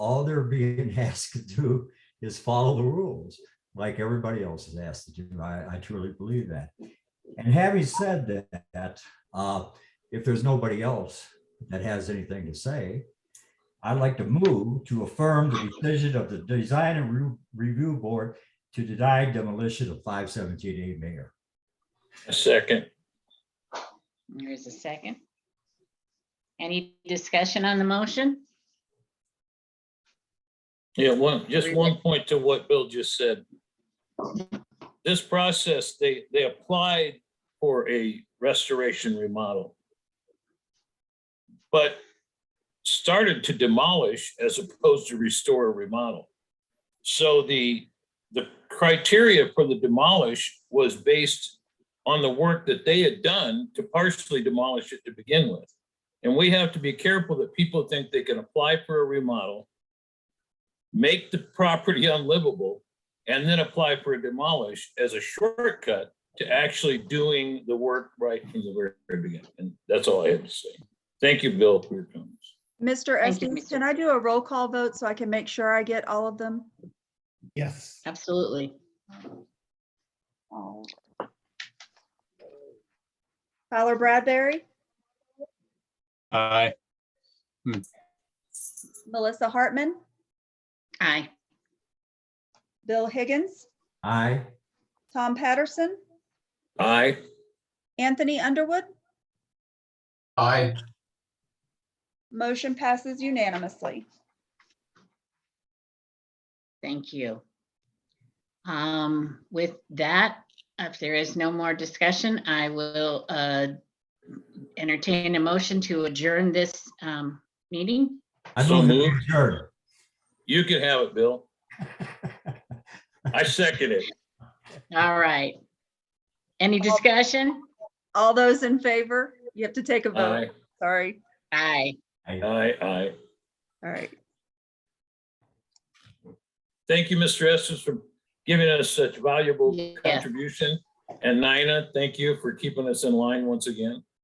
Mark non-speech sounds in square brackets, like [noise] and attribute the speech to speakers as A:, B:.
A: all they're being [laughs] asked to do is follow the rules, like everybody else is asked to do. I, I truly believe that. And having said that, uh, if there's nobody else that has anything to say, I'd like to move to affirm the decision of the Design and Re- Review Board to deny demolition of five seventeen A Mayor.
B: A second.
C: There's a second. Any discussion on the motion?
B: Yeah, one, just one point to what Bill just said. This process, they, they applied for a restoration remodel. But started to demolish as opposed to restore or remodel. So the, the criteria for the demolish was based on the work that they had done to partially demolish it to begin with. And we have to be careful that people think they can apply for a remodel make the property unlivable, and then apply for a demolish as a shortcut to actually doing the work right from the very beginning. And that's all I had to say. Thank you, Bill, for your comments.
D: Mr.
C: Thank you,
D: Estes,
C: Mr.
D: can I do a roll call vote so I can make sure I get all of them?
E: Yes.
C: Absolutely.
D: Tyler Bradbury,
F: Aye.
D: Melissa Hartman,
C: Aye.
D: Bill Higgins,
A: Aye.
D: Tom Patterson,
B: Aye.
D: Anthony Underwood.
E: Aye.
D: Motion passes unanimously.
C: Thank you. Um, with that, if there is no more discussion, I will uh entertain a motion to adjourn this um meeting.
A: I
B: So
A: move that we
B: moved.
A: adjourn. [laughs]
B: You can have it, Bill. I second it.
C: All right. Any discussion?
D: All those in favor, you have to take a
B: Aye,
D: vote. Sorry.
C: Aye.
B: aye, aye.
D: All right.
B: Thank you, Mr. Estes, for giving us such valuable
C: Yeah.
B: contribution. And Nina, thank you for keeping us in line once again.